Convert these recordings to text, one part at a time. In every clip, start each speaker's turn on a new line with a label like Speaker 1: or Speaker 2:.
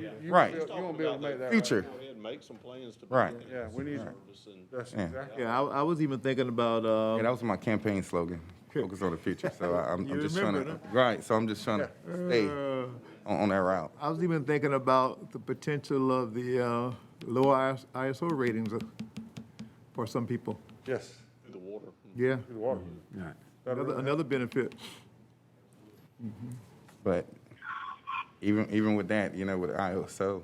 Speaker 1: you
Speaker 2: Right.
Speaker 1: won't be, you won't be able to make that. right.
Speaker 2: Future.
Speaker 3: Go ahead and make some plans to.
Speaker 2: Right.
Speaker 3: begin
Speaker 1: Yeah, we need-
Speaker 3: service and-
Speaker 1: That's
Speaker 2: Yeah.
Speaker 1: exactly.
Speaker 4: Yeah, I, I was even thinking about,
Speaker 2: Yeah, that
Speaker 4: um,
Speaker 2: was my campaign slogan, focus on the future. So I- I'm, I'm
Speaker 4: You
Speaker 2: just trying to,
Speaker 4: remembered,
Speaker 2: right, so I'm just trying to stay
Speaker 4: uh,
Speaker 2: on, on that route.
Speaker 4: I was even thinking about the potential of the, uh, lower ISO ratings uh, for some people.
Speaker 1: Yes,
Speaker 3: through The water.
Speaker 4: Yeah,
Speaker 1: through the water.
Speaker 4: another, another benefit.
Speaker 2: But even, even with that, you know, with ISO,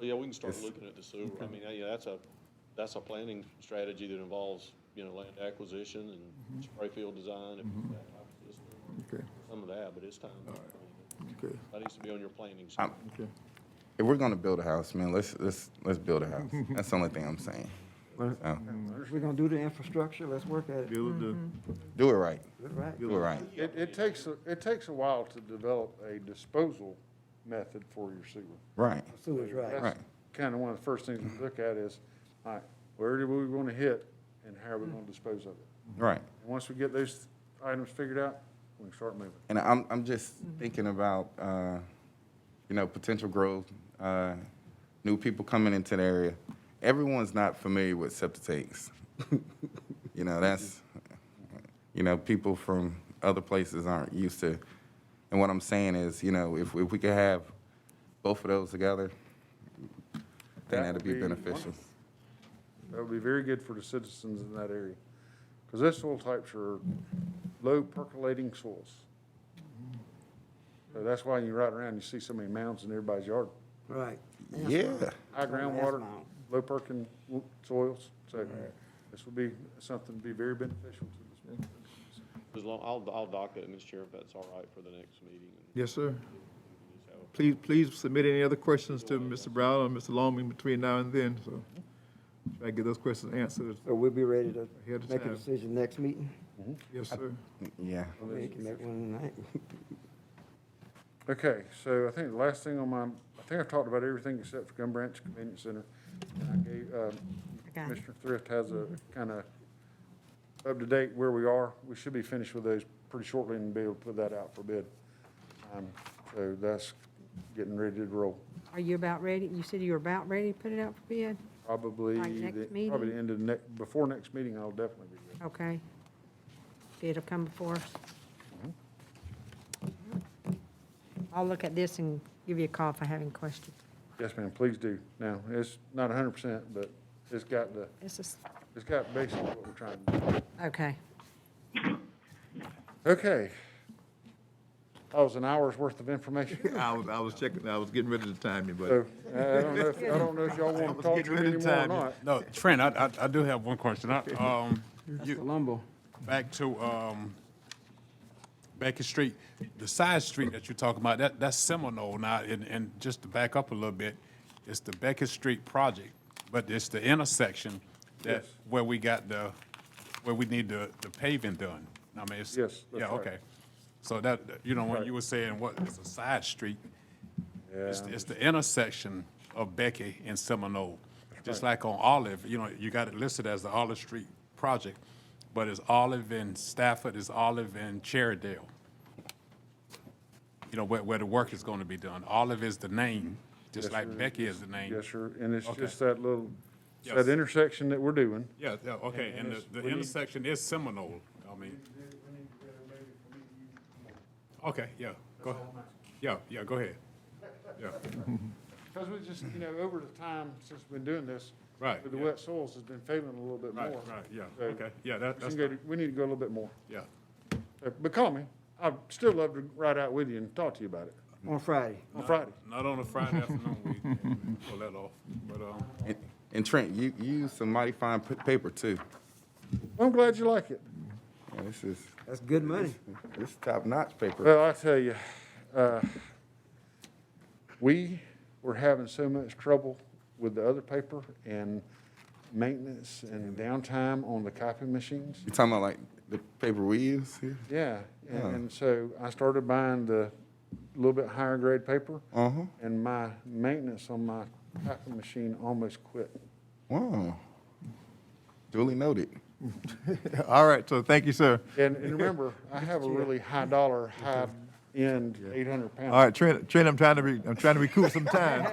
Speaker 3: Yeah, we can start looking at the sewer. I mean, yeah, that's a, that's a planning strategy that involves, you know, land acquisition
Speaker 2: Mm-hmm.
Speaker 3: and spray field design and that type of system.
Speaker 4: Okay,
Speaker 3: some of that, but it's time.
Speaker 4: okay,
Speaker 3: That needs to be on your planning. sheet.
Speaker 2: I'm-
Speaker 4: okay.
Speaker 2: if we're gonna build a house, man, let's, let's, let's build a house. That's the only thing I'm saying. So,
Speaker 5: If we're gonna do the infrastructure, let's work at it,
Speaker 4: Build the-
Speaker 2: Do it right,
Speaker 5: right?
Speaker 2: do it right.
Speaker 1: It, it takes, a- it takes a while to develop a disposal method for your sewer.
Speaker 2: Right,
Speaker 5: Sewers, right.
Speaker 2: Right.
Speaker 1: Kind of one of the first things we look at is, all right, where do we want to hit and how are we going to dispose of it?
Speaker 2: right.
Speaker 1: And Once we get those items figured out, we can start moving.
Speaker 2: And I'm, I'm just thinking about, uh, you know, potential growth, uh, new people coming into the area. Everyone's not familiar with septic tanks. you know, that's, you know, people from other places aren't used to. And what I'm saying is, you know, if, if we could have both of those together, then
Speaker 1: That
Speaker 2: that'd
Speaker 1: would
Speaker 2: be
Speaker 1: be
Speaker 2: beneficial.
Speaker 1: wonderful. That would be very good for the citizens in that area. Because those soil types are low percolating soils. So that's why you ride around, you see so many mounds in everybody's yard.
Speaker 5: Right.
Speaker 2: Yeah.
Speaker 1: High
Speaker 5: That's mine.
Speaker 1: groundwater, low perking w- soils, so this would be something to be very beneficial to this.
Speaker 3: As long, I'll, I'll dock it, Mr. Chair, if that's all right for the next meeting.
Speaker 4: Yes, sir. Please, please submit any other questions to Mr. Brown or Mr. Longman between now and then, so try to get those questions answered.
Speaker 5: So we'll be ready to
Speaker 4: Ahead of
Speaker 5: make a
Speaker 4: time.
Speaker 5: decision next meeting?
Speaker 4: Yes, sir.
Speaker 2: Yeah.
Speaker 5: We can make one tonight.
Speaker 1: Okay, so I think the last thing on my, I think I've talked about everything except for Gum Branch Convenience Center. And I gave, um,
Speaker 6: got it. Mm-hmm.
Speaker 1: Commissioner Thrift has a kind of up to date where we are. We should be finished with those pretty shortly and be able to put that out for bid. Um, So that's getting ready to roll.
Speaker 6: Are you about ready? You said you were about ready to put it out for bid?
Speaker 1: Probably,
Speaker 6: By next
Speaker 1: the-
Speaker 6: meeting?
Speaker 1: probably the end of next, before next meeting, I'll definitely be ready.
Speaker 6: Okay. Bid'll come before us. I'll look at this and give you a call if I have any questions.
Speaker 1: Yes, ma'am, please do. Now, it's not hundred percent, but it's got the,
Speaker 6: This is,
Speaker 1: it's got basically what we're trying to do.
Speaker 6: okay.
Speaker 1: Okay. That was an hour's worth of information.
Speaker 4: I was, I was checking, I was getting ready to time you, but.
Speaker 1: So I I don't know, if- I don't know if y'all want to talk
Speaker 4: getting
Speaker 1: to me
Speaker 4: ready to
Speaker 1: anymore or
Speaker 4: time you.
Speaker 1: not.
Speaker 7: No, Trent, I, I, I do have one question. I, um,
Speaker 5: That's
Speaker 7: you,
Speaker 5: Columbo.
Speaker 7: back to, um, Beckett Street, the side street that you're talking about, that, that's Seminole now, and, and just to back up a little bit, it's the Beckett Street project, but it's the intersection that,
Speaker 1: Yes.
Speaker 7: where we got the, where we need the, the paving done. I mean, it's.
Speaker 1: Yes, that's
Speaker 7: Yeah,
Speaker 1: right.
Speaker 7: okay. So that, you know, when you were saying what, it's a side street, it's, it's the intersection of Becky and Seminole. Just like on Olive, you know, you got it listed as the Olive Street project, but it's Olive and Stafford, it's Olive and Cherrydale. You know, where, where the work is gonna be done. Olive is the name, just like Becky is the name.
Speaker 1: Yes, sir, and it's
Speaker 7: Okay.
Speaker 1: just that little, that
Speaker 7: Yes.
Speaker 1: intersection that we're doing.
Speaker 7: Yeah, yeah, okay, and the, the intersection is Seminole, I mean. Okay, yeah, go, yeah, yeah, go ahead. Yeah,
Speaker 1: Because we just, you know, over the time since we've been doing this.
Speaker 7: Right,
Speaker 1: with The
Speaker 7: yeah.
Speaker 1: wet soils has been failing a little bit more.
Speaker 7: right, right, yeah,
Speaker 1: So
Speaker 7: okay, yeah,
Speaker 1: we
Speaker 7: that,
Speaker 1: can
Speaker 7: that's,
Speaker 1: go to- We need to go a little bit more.
Speaker 7: yeah.
Speaker 1: Uh, But call me, I'd still love to ride out with you and talk to you about it
Speaker 5: On Friday.
Speaker 1: on Friday.
Speaker 7: Not on a Friday afternoon, we pull that off, but, um,
Speaker 2: And- And Trent, you, you use some mighty fine p- paper too.
Speaker 1: I'm glad you like it.
Speaker 2: Yeah, this is,
Speaker 5: That's good money.
Speaker 2: this is top-notch paper.
Speaker 1: Well, I tell you, uh, we were having so much trouble with the other paper and maintenance and downtime on the copy machines.
Speaker 2: You talking about like the paper we use here?
Speaker 1: Yeah, and, and so I started buying the little bit higher grade paper,
Speaker 2: Uh-huh.
Speaker 1: and my maintenance on my copy machine almost quit.
Speaker 2: Wow. Duly noted.
Speaker 4: All right, so thank you, sir.
Speaker 1: And, and remember, I have a really high dollar, high end, eight hundred pound.
Speaker 4: All right, Trent, Trent, I'm trying to, re- I'm trying to recoup some time.